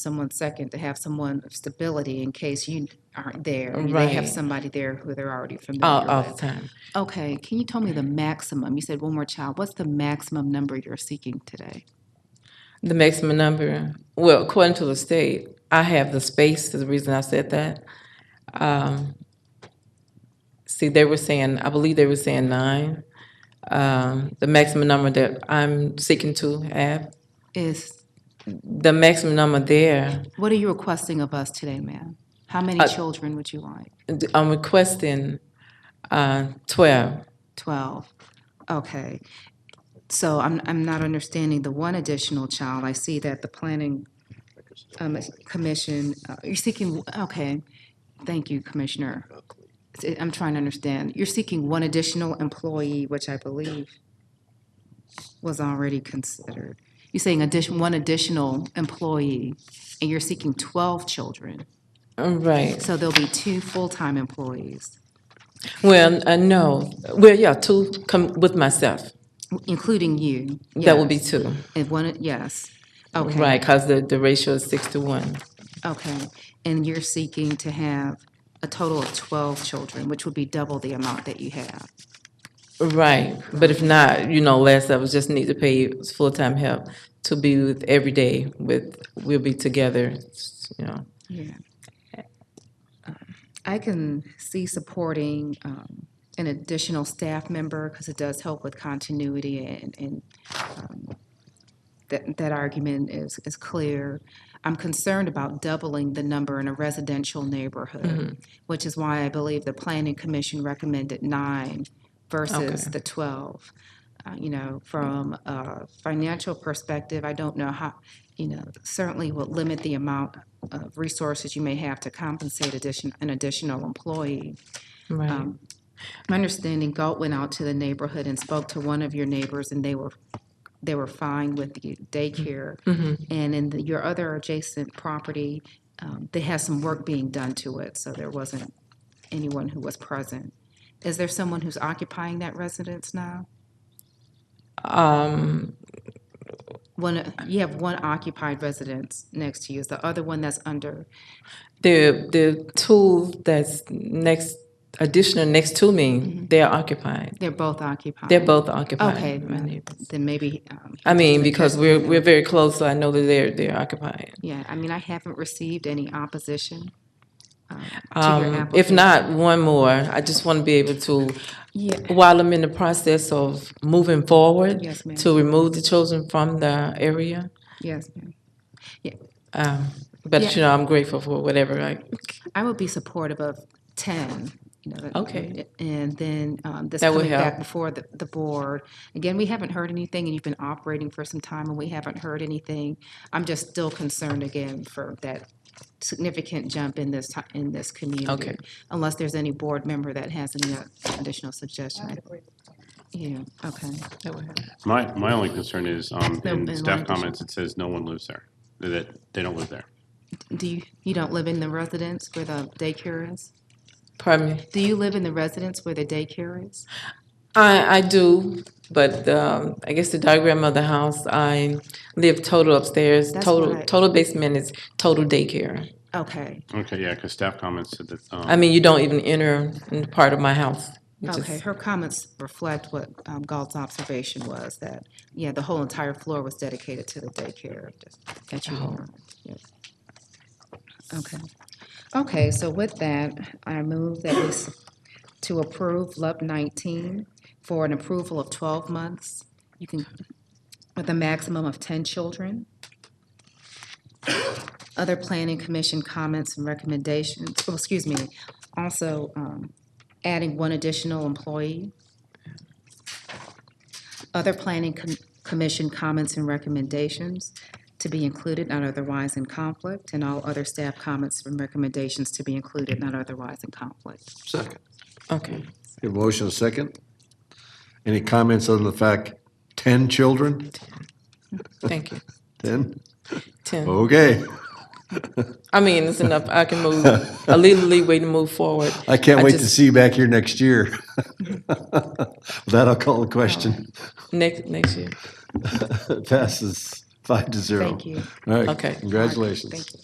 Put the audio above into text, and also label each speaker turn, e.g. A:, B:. A: someone second to have someone of stability in case you aren't there. and They have
B: Right.
A: somebody there who they're already
B: all,
A: familiar
B: Oh, all the
A: with.
B: time.
A: Uh, Okay, can you tell me the maximum? You said one more child. What's the maximum number you're seeking today?
B: The maximum number, well, according to the state, I have the space, is the reason I said that. Um, See, they were saying, I believe they were saying nine. Um, The maximum number that I'm seeking to have,
A: Is,
B: the maximum number there,
A: what are you requesting of us today, ma'am? How many children would you like?
B: I'm requesting uh, twelve.
A: 12. Okay. So I'm, I'm not understanding the one additional child. I see that the planning um, commission, uh, you're seeking, okay, thank you, Commissioner. It's- I'm trying to understand. You're seeking one additional employee, which I believe was already considered. You're saying addition, one additional employee, and you're seeking 12 children.
B: Right,
A: So there'll be two full-time employees,
B: well, uh, no, well, yeah, two, come with myself,
A: including you.
B: that would be
A: Yes.
B: two.
A: And one, yes. Okay,
B: Right, because the, the ratio is six to one.
A: okay. And you're seeking to have a total of 12 children, which would be double the amount that you have.
B: Right, but if not, you know, less of us just need to pay full-time help to be with every day with, we'll be together, you know.
A: Yeah. Um, I can see supporting um, an additional staff member because it does help with continuity and, and um, that, that argument is, is clear. I'm concerned about doubling the number in a residential neighborhood, which is why I believe the planning commission recommended nine versus the 12. Uh, You know, from a financial perspective, I don't know how, you know, certainly would limit the amount of resources you may have to compensate addition, an additional employee. Um,
B: Right,
A: My understanding, Galt went out to the neighborhood and spoke to one of your neighbors, and they were, they were fine with the daycare. And in the- your other adjacent property, um, they had some work being done to it, so there wasn't anyone who was present. Is there someone who's occupying that residence now?
B: Um,
A: One, you have one occupied residence next to you. Is the other one that's under,
B: the, the two that's next, additional next to me, they're occupied,
A: they're both occupied?
B: they're both occupied.
A: Okay,
B: my
A: well,
B: neighbor.
A: then maybe, um,
B: I mean, because we're, we're very close, so I know that they're, they're occupied.
A: yeah, I mean, I haven't received any opposition um, to your
B: Um,
A: application.
B: if not, one more, I just want to be able to,
A: Yeah.
B: while I'm in the process of moving forward,
A: Yes, ma'am.
B: to remove the children from the area.
A: Yes, ma'am.
B: Um, but you know, I'm grateful for whatever. Like,
A: I would be supportive of 10, you know. that-
B: Okay.
A: And then um, this
B: That would
A: coming back
B: help.
A: before the, the board. Again, we haven't heard anything, and you've been operating for some time, and we haven't heard anything. I'm just still concerned again for that significant jump in this, ti- in this community.
B: Okay.
A: Unless there's any board member that has any uh, additional suggestion. Yeah, okay.
C: My, my only concern is, um,
A: No,
C: in
A: in line
C: staff
A: to-
C: comments, it says no one lives there, that they don't live there.
A: Do you, you don't live in the residence where the daycare is?
B: pardon me.
A: Do you live in the residence where the daycare is?
B: I, I do, but um, I guess the diagram of the house, I live total upstairs.
A: That's
B: total
A: what I-
B: total basement is total daycare.
A: Okay,
C: Okay, yeah, because staff comments said that,
B: I
C: um,
B: mean, you don't even enter in part of my house. which
A: okay.
B: is
A: Her comments reflect what um, Galt's observation was, that, yeah, the whole entire floor was dedicated to the daycare that you own. Yes. Okay. Okay, so with that, I move that we, s- to approve LUP 19 for an approval of 12 months. You can, with a maximum of 10 children. Other planning commission comments and recommendations, oh, excuse me, also um, adding one additional employee. Other planning com- commission comments and recommendations to be included, not otherwise in conflict, and all other staff comments and recommendations to be included, not otherwise in conflict.
D: Second.
B: Okay.
D: Your motion is second. Any comments on the fact, 10 children?
B: Thank you.
D: 10?
B: Ten.
D: Okay.
B: I mean, it's enough. I can move a little leeway to move forward.
D: I can't wait to
B: just-
D: see you back here next year. With That I'll call the question.
B: Next next year.
D: Passes Five to zero.
A: Thank you.
D: All right.
B: Okay.
D: Congratulations.
A: Thank you.